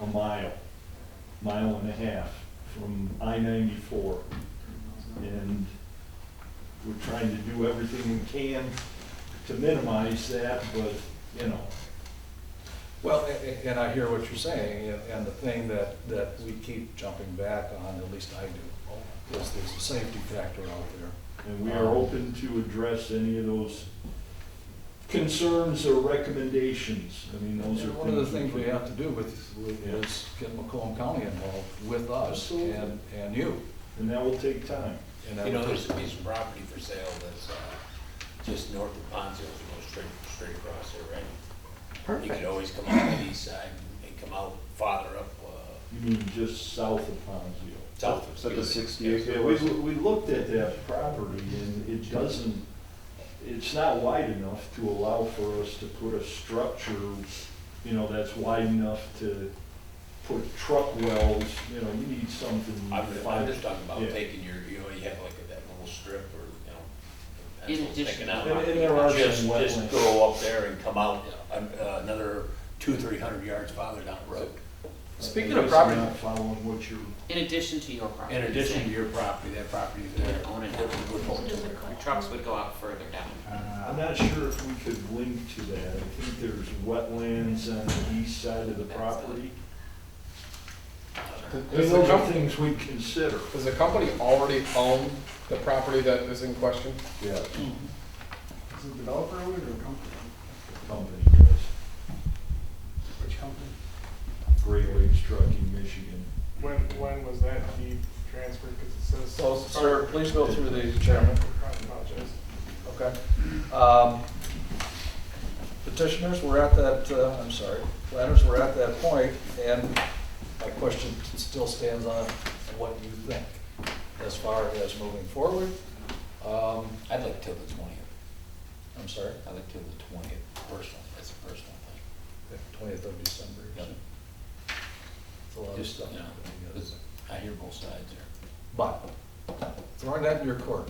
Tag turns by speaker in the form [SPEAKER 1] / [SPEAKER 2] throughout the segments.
[SPEAKER 1] a mile, mile and a half from I-94. And we're trying to do everything we can to minimize that, but, you know,
[SPEAKER 2] Well, a- a- and I hear what you're saying, and- and the thing that, that we keep jumping back on, at least I do, is there's a safety factor out there.
[SPEAKER 1] and we are open to address any of those concerns or recommendations. I mean, those are
[SPEAKER 2] And
[SPEAKER 1] things.
[SPEAKER 2] one of the
[SPEAKER 1] we
[SPEAKER 2] things we
[SPEAKER 1] can-
[SPEAKER 2] have to do with, with-
[SPEAKER 1] Yeah.
[SPEAKER 2] is get Macomb County involved with us
[SPEAKER 1] Absolutely.
[SPEAKER 2] and, and you.
[SPEAKER 1] And that will take time.
[SPEAKER 2] And that-
[SPEAKER 3] You know, there's a piece of property for sale that's uh, just north of Ponzo's, goes straight, straight across there, right? You could
[SPEAKER 4] Perfect.
[SPEAKER 3] always come out the east side and come out farther up, uh,
[SPEAKER 1] You mean just south of Ponzio?
[SPEAKER 3] south of.
[SPEAKER 5] Is that the
[SPEAKER 3] Wheeling.
[SPEAKER 5] sixty acre?
[SPEAKER 1] Yeah, we, we looked at that property and it doesn't, it's not wide enough to allow for us to put a structure, you know, that's wide enough to put truck wells, you know, you need something.
[SPEAKER 3] I'm, I'm just
[SPEAKER 1] five-
[SPEAKER 3] talking about
[SPEAKER 1] Yeah.
[SPEAKER 3] taking your, you know, you have like that little strip or, you know. that's
[SPEAKER 4] In
[SPEAKER 3] what I'm thinking
[SPEAKER 4] addition.
[SPEAKER 3] out.
[SPEAKER 1] And- and there are some
[SPEAKER 3] Just,
[SPEAKER 1] wetlands.
[SPEAKER 3] just go up there and come out uh, another two, three hundred yards farther down the road.
[SPEAKER 5] Speaking
[SPEAKER 1] Uh, I
[SPEAKER 5] of
[SPEAKER 1] guess
[SPEAKER 5] property-
[SPEAKER 1] I'm not following what you're,
[SPEAKER 4] In addition to your property.
[SPEAKER 3] In addition to
[SPEAKER 4] saying
[SPEAKER 3] your property, that property
[SPEAKER 4] You
[SPEAKER 3] there.
[SPEAKER 4] would own it. Your trucks would go out further down.
[SPEAKER 1] I'm not sure if we could link to that. I think there's wetlands on the east side of the property. Those
[SPEAKER 5] Is the
[SPEAKER 1] are
[SPEAKER 5] company-
[SPEAKER 1] things we consider.
[SPEAKER 5] Does the company already own the property that is in question?
[SPEAKER 1] Yeah.
[SPEAKER 6] Is it developer owned or company?
[SPEAKER 1] Company does.
[SPEAKER 6] Which company?
[SPEAKER 1] Great Lakes Trucking, Michigan.
[SPEAKER 7] When, when was that deed transferred, because it says.
[SPEAKER 2] So,
[SPEAKER 6] Oh,
[SPEAKER 2] sir, please go through these, Chairman.
[SPEAKER 7] I apologize.
[SPEAKER 2] Okay. Um, Petitioners, we're at that, uh, I'm sorry, planners, we're at that point, and my question still stands on what you think as far as moving forward. Um,
[SPEAKER 3] I'd like till the twentieth,
[SPEAKER 2] I'm sorry,
[SPEAKER 3] I'd like till the twentieth, personal, that's a personal thing.
[SPEAKER 2] twentieth of December.
[SPEAKER 3] Yep.
[SPEAKER 2] It's a lot of
[SPEAKER 3] Just,
[SPEAKER 2] stuff.
[SPEAKER 3] you know, it's- I hear both sides there.
[SPEAKER 2] But throwing that in your court,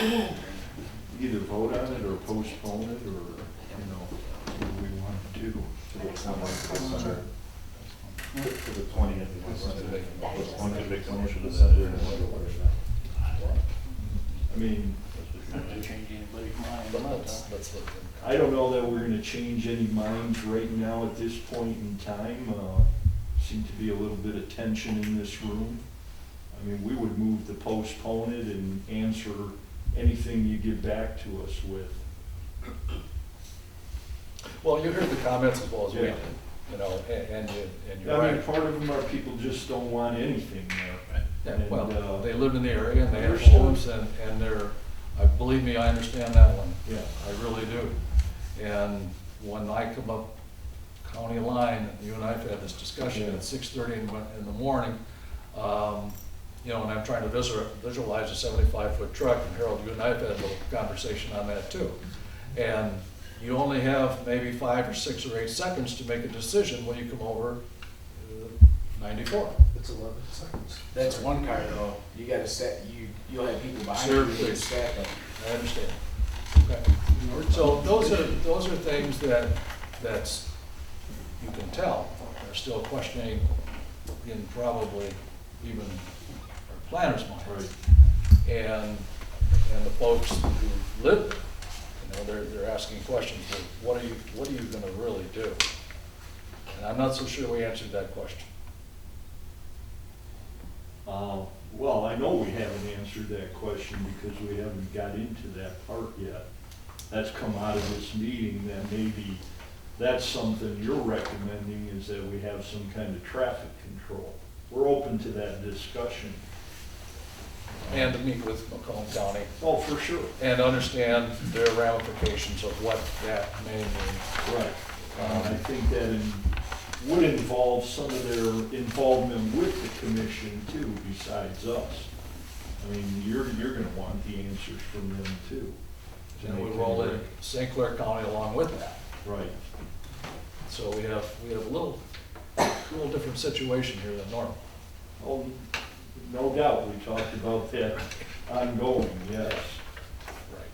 [SPEAKER 1] Either vote on it or postpone it or, you know, what do we want to do?
[SPEAKER 5] To the twentieth.
[SPEAKER 8] One could make a motion to that.
[SPEAKER 1] I mean,
[SPEAKER 3] Not gonna change anybody's mind.
[SPEAKER 2] but let's, let's look. at-
[SPEAKER 1] I don't know that we're gonna change any minds right now at this point in time. Uh, Seemed to be a little bit of tension in this room. I mean, we would move to postpone it and answer anything you get back to us with.
[SPEAKER 2] Well, you heard the comments as well as we
[SPEAKER 1] Yeah.
[SPEAKER 2] did, you know, and, and you- and you're
[SPEAKER 1] I mean,
[SPEAKER 2] right.
[SPEAKER 1] part of them are people just don't want anything there.
[SPEAKER 2] Yeah,
[SPEAKER 1] And,
[SPEAKER 2] well,
[SPEAKER 1] uh,
[SPEAKER 2] they live in the area and they have
[SPEAKER 1] Understood.
[SPEAKER 2] homes and, and they're, I, believe me, I understand that one.
[SPEAKER 1] Yeah.
[SPEAKER 2] I really do. And when I come up county line, and you and I've had this discussion
[SPEAKER 1] Yeah.
[SPEAKER 2] at six thirty in, the- in the morning, um, you know, and I'm trying to visu- visualize a seventy-five foot truck, and Harold, you and I have had a little conversation on that too. And you only have maybe five or six or eight seconds to make a decision when you come over uh, ninety-four.
[SPEAKER 8] It's eleven seconds.
[SPEAKER 9] That's one car though. You gotta set, you, you'll have people behind
[SPEAKER 2] Sure,
[SPEAKER 9] you that
[SPEAKER 2] please.
[SPEAKER 9] stack up.
[SPEAKER 2] I understand. Okay. So those are, those are things that, that's, you can tell, are still questioning in probably even our planners' minds. And, and the folks who live, you know, they're, they're asking questions, like, what are you, what are you gonna really do? And I'm not so sure we answered that question.
[SPEAKER 1] Uh, Well, I know we haven't answered that question because we haven't got into that part yet. That's come out of this meeting, that maybe that's something you're recommending is that we have some kind of traffic control. We're open to that discussion.
[SPEAKER 2] And to meet with Macomb County
[SPEAKER 1] Oh, for sure.
[SPEAKER 2] and understand their ramifications of what that may mean
[SPEAKER 1] Right. Uh, I think that in- would involve some of their involvement with the commission too, besides us. I mean, you're, you're gonna want the answers from them too. to
[SPEAKER 2] And we
[SPEAKER 1] make
[SPEAKER 2] roll
[SPEAKER 1] any
[SPEAKER 2] in St. Clair County along with that.
[SPEAKER 1] Right.
[SPEAKER 2] So we have, we have a little, little different situation here than normal.
[SPEAKER 1] Oh, no doubt, we talked about that ongoing, yes.
[SPEAKER 2] Right.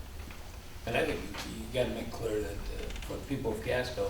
[SPEAKER 3] And I think you you gotta make clear that uh, for the people of Casco,